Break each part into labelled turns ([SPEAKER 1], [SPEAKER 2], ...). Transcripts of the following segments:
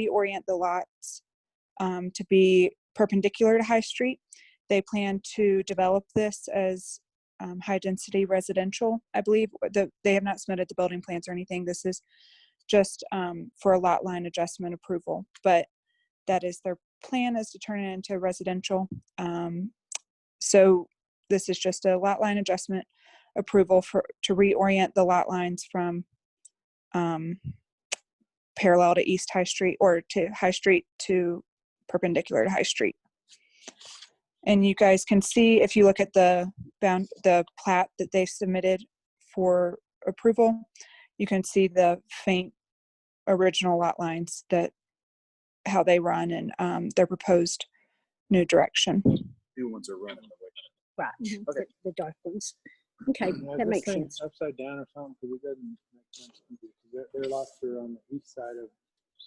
[SPEAKER 1] reorient the lots um, to be perpendicular to High Street. They plan to develop this as um, high-density residential, I believe. The, they have not submitted the building plans or anything. This is just um, for a lot line adjustment approval, but that is their plan is to turn it into residential. Um, so this is just a lot line adjustment approval for to reorient the lot lines from um, parallel to East High Street or to High Street to perpendicular to High Street. And you guys can see if you look at the bound the plat that they submitted for approval, you can see the faint original lot lines that how they run and um, their proposed new direction.
[SPEAKER 2] New ones are running.
[SPEAKER 3] Right, the, the dark ones. Okay,
[SPEAKER 2] Mm-hmm. Mm,
[SPEAKER 3] that makes sense.
[SPEAKER 2] Upside down or something, because it doesn't make sense to me, 'cause Their, their lots are on the east side of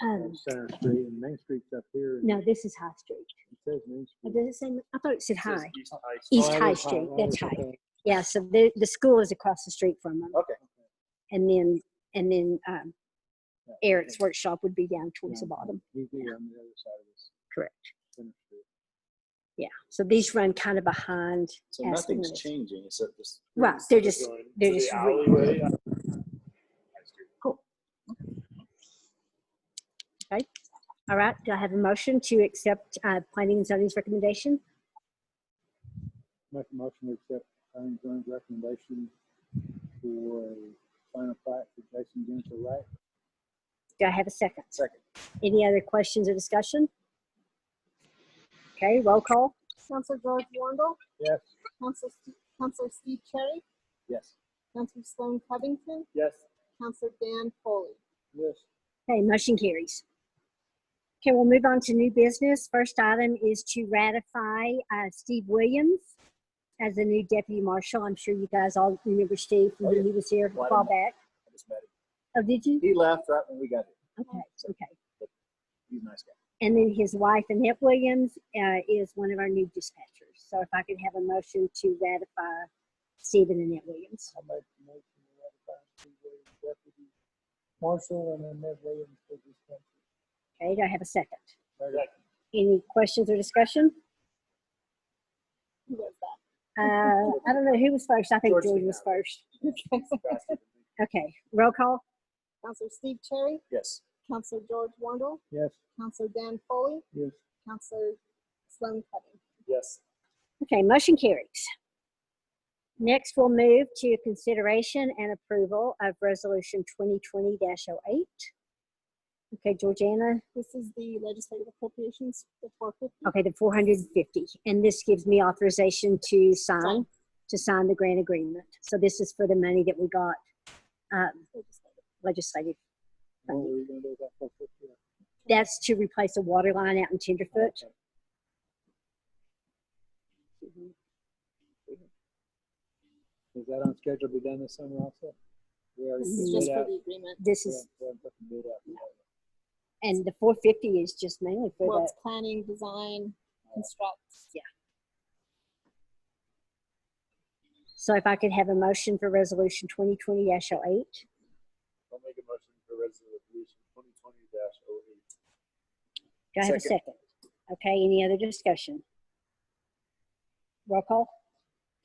[SPEAKER 2] uh,
[SPEAKER 3] Um,
[SPEAKER 2] Center Street and Main Street's up here. and
[SPEAKER 3] no, this is High Street.
[SPEAKER 2] It says Main
[SPEAKER 3] Oh,
[SPEAKER 2] Street.
[SPEAKER 3] Does it say, I thought it said High.
[SPEAKER 2] Oh,
[SPEAKER 3] East
[SPEAKER 2] that
[SPEAKER 3] High
[SPEAKER 2] is
[SPEAKER 3] Street,
[SPEAKER 2] that
[SPEAKER 3] that's
[SPEAKER 2] is
[SPEAKER 3] High.
[SPEAKER 2] Oh, okay.
[SPEAKER 3] Yeah, so the, the school is across the street from them.
[SPEAKER 2] Okay.
[SPEAKER 3] And then, and then, um,
[SPEAKER 2] Yeah,
[SPEAKER 3] Eric's workshop would be down towards the
[SPEAKER 2] Yeah,
[SPEAKER 3] bottom.
[SPEAKER 2] He'd be on the other side of this.
[SPEAKER 3] Correct.
[SPEAKER 2] Center Street.
[SPEAKER 3] Yeah, so these run kind of behind.
[SPEAKER 4] So
[SPEAKER 3] Aspen
[SPEAKER 4] nothing's
[SPEAKER 3] Woods.
[SPEAKER 4] changing except just.
[SPEAKER 3] Right, they're just, they're
[SPEAKER 4] to
[SPEAKER 3] just
[SPEAKER 4] the
[SPEAKER 3] re-
[SPEAKER 4] alleyway.
[SPEAKER 3] All right, do I have a motion to accept, uh, planning and zoning's recommendation?
[SPEAKER 2] Make a motion to accept Attorney Jones' recommendation for a final plat for Jason Gensel Wright.
[SPEAKER 3] Do I have a second?
[SPEAKER 4] Second.
[SPEAKER 3] Any other questions or discussion? Okay, roll call.
[SPEAKER 5] Counselor George Wondell,
[SPEAKER 2] Yes.
[SPEAKER 5] Counselor, Ste- Counselor Steve Cherry,
[SPEAKER 2] Yes.
[SPEAKER 5] Counselor Sloan Covington,
[SPEAKER 2] Yes.
[SPEAKER 5] Counselor Dan Foley.
[SPEAKER 2] Yes.
[SPEAKER 3] Okay, motion carries. Okay, we'll move on to new business. First item is to ratify uh, Steve Williams as the new deputy marshal. I'm sure you guys all remember Steve from
[SPEAKER 4] Oh,
[SPEAKER 3] when
[SPEAKER 4] yeah.
[SPEAKER 3] he was here a
[SPEAKER 4] Why
[SPEAKER 3] while
[SPEAKER 4] didn't-
[SPEAKER 3] back.
[SPEAKER 4] I just met
[SPEAKER 3] Oh, did you?
[SPEAKER 4] him. He left right when we got here.
[SPEAKER 3] Okay, okay.
[SPEAKER 4] He's a nice guy.
[SPEAKER 3] And then his wife Annette Williams uh, is one of our new dispatchers. So if I could have a motion to ratify Stephen and Annette Williams.
[SPEAKER 2] I make the motion to ratify Steve Williams, deputy marshal, and Annette Williams for this country.
[SPEAKER 3] Okay, do I have a second?
[SPEAKER 2] Right.
[SPEAKER 3] Any questions or discussion?
[SPEAKER 5] Who was that?
[SPEAKER 3] Uh, I don't know who was first. I think
[SPEAKER 4] George
[SPEAKER 3] George was first.
[SPEAKER 4] Faster than me.
[SPEAKER 3] Okay, roll call.
[SPEAKER 5] Counselor Steve Cherry,
[SPEAKER 4] Yes.
[SPEAKER 5] Counselor George Wondell,
[SPEAKER 2] Yes,
[SPEAKER 5] Counselor Dan Foley,
[SPEAKER 2] yes.
[SPEAKER 5] Counselor Sloan Covington.
[SPEAKER 4] Yes.
[SPEAKER 3] Okay, motion carries. Next, we'll move to consideration and approval of Resolution 2020-08. Okay, Georgiana,
[SPEAKER 5] This is the legislative appropriations, the 450.
[SPEAKER 3] okay, the 450, and this gives me authorization to sign,
[SPEAKER 5] Sign.
[SPEAKER 3] to sign the grant agreement. So this is for the money that we got um, legislative.
[SPEAKER 2] What were we gonna do about four fifty?
[SPEAKER 3] That's to replace a water line out in Tenderfoot. Mhm.
[SPEAKER 2] Mm-hmm. Is that on schedule to be done this summer also? We already
[SPEAKER 5] This is
[SPEAKER 2] bid
[SPEAKER 5] just for
[SPEAKER 2] out-
[SPEAKER 5] the agreement.
[SPEAKER 3] This
[SPEAKER 2] we
[SPEAKER 3] is,
[SPEAKER 2] haven't- we haven't put the bid out yet.
[SPEAKER 3] and the 450 is just mainly for
[SPEAKER 5] Well,
[SPEAKER 3] the
[SPEAKER 5] it's planning, design, construct.
[SPEAKER 3] So if I could have a motion for resolution twenty twenty oh 8
[SPEAKER 4] I'll make a motion for resolution twenty twenty dash oh
[SPEAKER 2] E.
[SPEAKER 4] eight.
[SPEAKER 3] do I have a
[SPEAKER 4] Second.
[SPEAKER 3] second? Okay, any other discussion? Roll call?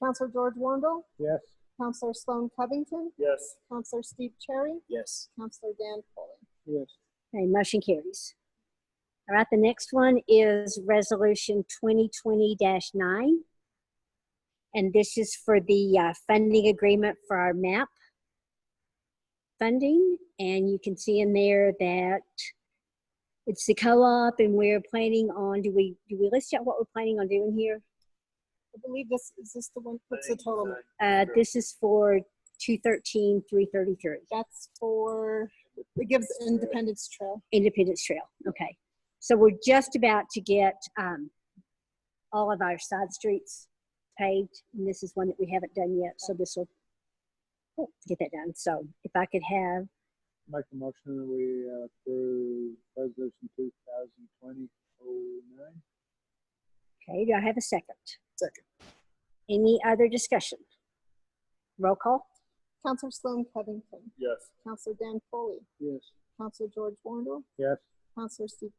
[SPEAKER 5] Counselor George Wondell,
[SPEAKER 2] Yes,
[SPEAKER 5] Counselor Sloan Covington,
[SPEAKER 4] Yes.
[SPEAKER 5] Counselor Steve Cherry,
[SPEAKER 4] Yes.
[SPEAKER 5] Counselor Dan Foley.
[SPEAKER 2] yes.
[SPEAKER 3] Okay, motion carries. All right, the next one is resolution twenty twenty nine. And this is for the uh, funding agreement for our MAP funding. And you can see in there that it's the co-op and we're planning on, do we, do we list out what we're planning on doing here?
[SPEAKER 5] I believe this, is this the one, what's the total? amount?
[SPEAKER 3] Uh,
[SPEAKER 4] Sure.
[SPEAKER 3] this is for two thirteen, three thirty-three,
[SPEAKER 5] That's for, it gives Independence Trail.
[SPEAKER 3] Independence Trail, okay. So we're just about to get, um, all of our side streets paved, and this is one that we haven't done yet, so this will oh, get that done. So if I could have,
[SPEAKER 2] Make a motion that we uh, approve resolution two thousand twenty oh nine.
[SPEAKER 3] okay, do I have a second?
[SPEAKER 4] Second.
[SPEAKER 3] Any other discussion? Roll call?
[SPEAKER 5] Counselor Sloan Covington,
[SPEAKER 4] Yes.
[SPEAKER 5] Counselor Dan Foley,
[SPEAKER 2] Yes,
[SPEAKER 5] Counselor George Wondell,
[SPEAKER 2] yes.
[SPEAKER 5] Counselor Steve